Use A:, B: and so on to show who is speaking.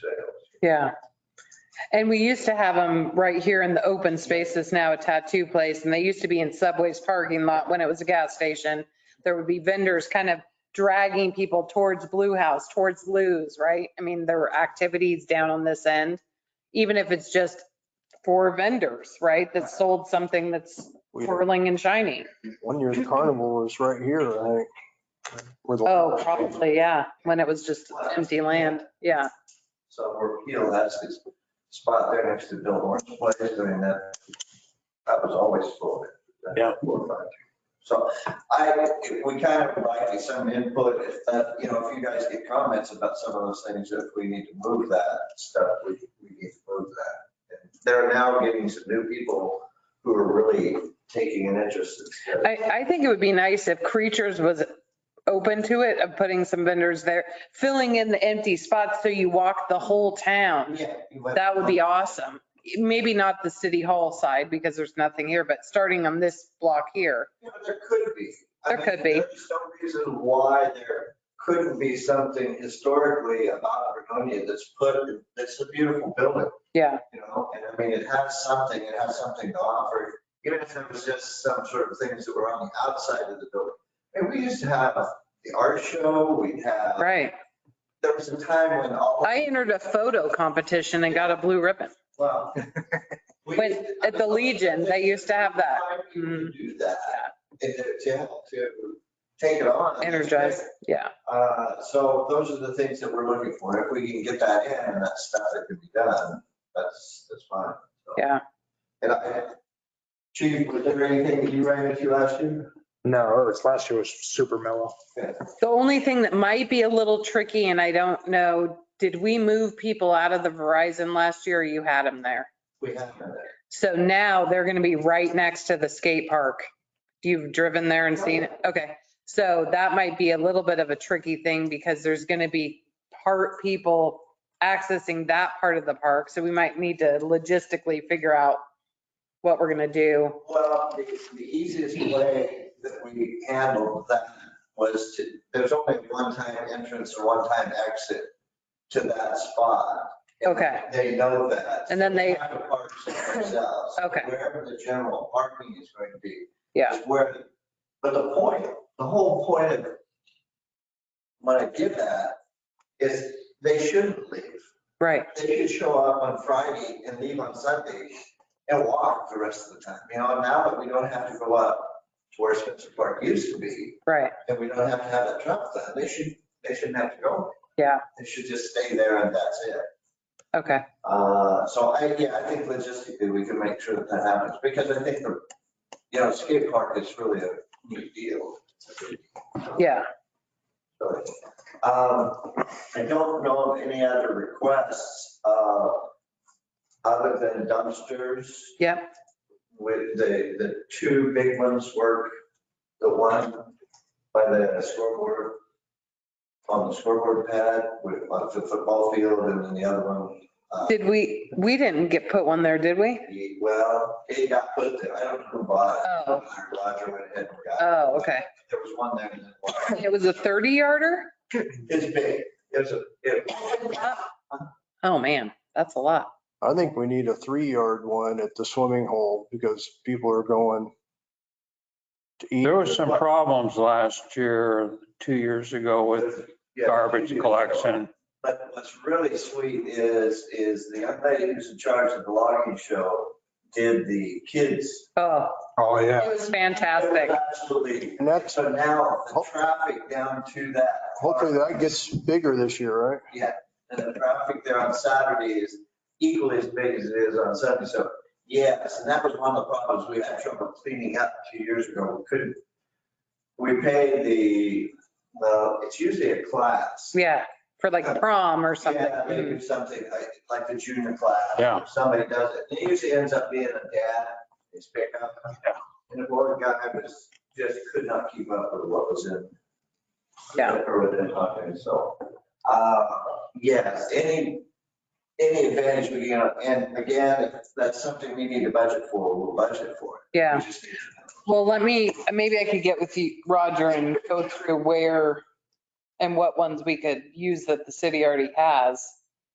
A: sales.
B: Yeah. And we used to have them right here in the open space that's now a tattoo place. And they used to be in Subway's parking lot when it was a gas station. There would be vendors kind of dragging people towards Blue House, towards Lou's, right? I mean, there were activities down on this end, even if it's just for vendors, right? That sold something that's
C: We-
B: swirling and shiny.
C: One year the carnival was right here, I think. where the-
B: Oh, probably, yeah. When it was just empty land. Yeah.
A: So we're, you know, that's the spot there next to Bill Moore's place. I mean, that, that was always full. of it.
C: Yeah.
A: So I, we kind of like some input, if that, you know, if you guys get comments about some of those things, if we need to move that stuff, we, we need to move that. And They're now getting some new people who are really taking an interest in it.
B: I, I think it would be nice if Creatures was open to it, of putting some vendors there, filling in the empty spots so you walk the whole town.
A: Yeah, you went-
B: That would be awesome. Maybe not the city hall side because there's nothing here, but starting on this block here.
A: Yeah, but There could be. I
B: There
A: mean,
B: could be.
A: There's no reason why there couldn't be something historically about Vernonia that's put, that's a beautiful building,
B: Yeah,
A: you know? And I mean, it has something, it has something to offer, even if it was just some sort of things that were on the outside of the building. And we used to have the art show, we'd have,
B: right.
A: there was a time when all,
B: I entered a photo competition and got a blue ribbon.
A: well. we
B: When-
A: used to-
B: at the Legion, they used to have that. Mm-hmm.
A: People to Do that, and to, to, to take it on.
B: Energized, yeah.
A: Uh, So those are the things that we're looking for. If we can get that in and that stuff that can be done, that's, that's fine. So-
B: Yeah.
A: And I, Chief, was there anything that you ran into last year?
C: No, it's last year was super mellow.
B: The only thing that might be a little tricky, and I don't know, did we move people out of the Verizon last year or you had them there?
A: We haven't. there.
B: So now they're going to be right next to the skate park. You've driven there and seen it? Okay. So that might be a little bit of a tricky thing because there's going to be part people accessing that part of the park. So we might need to logistically figure out what we're going to do.
A: Well, the the easiest way that we handled that was to, there's only one time entrance or one time exit to that spot.
B: Okay.
A: They know that.
B: And then they-
A: have to park someplace else.
B: Okay.
A: Wherever the general parking is going to be.
B: Yeah.
A: is Where, but the point, the whole point of when I did that is they shouldn't leave.
B: Right.
A: They should show up on Friday and leave on Sunday and walk the rest of the time. You know, now that we don't have to go up to where Spencer Park used to be,
B: Right.
A: and we don't have to have that traffic, light, they should, they shouldn't have to go.
B: Yeah.
A: They should just stay there and that's it.
B: Okay.
A: Uh, So I, yeah, I think logistically, we can make sure that that happens, because I think, the you know, skate park is really a neat deal.
B: Yeah.
A: Um, I don't know of any other requests, uh, other than dumpsters.
B: Yep.
A: With the, the two big ones work, the one by the scoreboard, on the scoreboard pad with, on the football field, and then the other one. uh,
B: Did we, we didn't get put one there, did we?
A: Ye- Well, it got put there. I don't know who bought it.
B: Oh.
A: Roger went ahead and got it.
B: Oh, okay.
A: There was one there. and then one.
B: It was a 30 yarder?
A: It's big. It's a, it,
B: Oh, man, that's a lot.
C: I think we need a three-yard one at the swimming hole because people are going to eat.
D: There was some problems last year, two years ago with
A: yeah.
D: garbage collection.
A: But what's really sweet is, is the young lady who's in charge of the logging show did the kids.
B: Oh,
C: Oh, yeah.
B: it was
A: It
B: fantastic.
A: was Absolutely.
C: And that's,
A: So now the traffic down to that.
C: hopefully
A: park-
C: that gets bigger this year, right?
A: And the traffic there on Saturday is equally as big as it is on Sunday. So yes, and that was one of the problems we had trouble cleaning up two years ago. We couldn't. We pay the, well, it's usually a class.
B: Yeah, for like prom or something. Hmm.
A: Yeah, maybe something like, like the junior class.
D: Yeah.
A: Somebody does it. It usually ends up being a dad, his pickup.
D: Yeah.
A: And the board guy was, just could not keep up with what was in.
B: Yeah.
A: Or within, so, uh, yes, any, any advantage we get, and again, if that's something we need to budget for, we'll budget for it.
B: Yeah.
A: We just need to-
B: Well, let me, maybe I could get with you, Roger, and go through where and what ones we could use that the city already has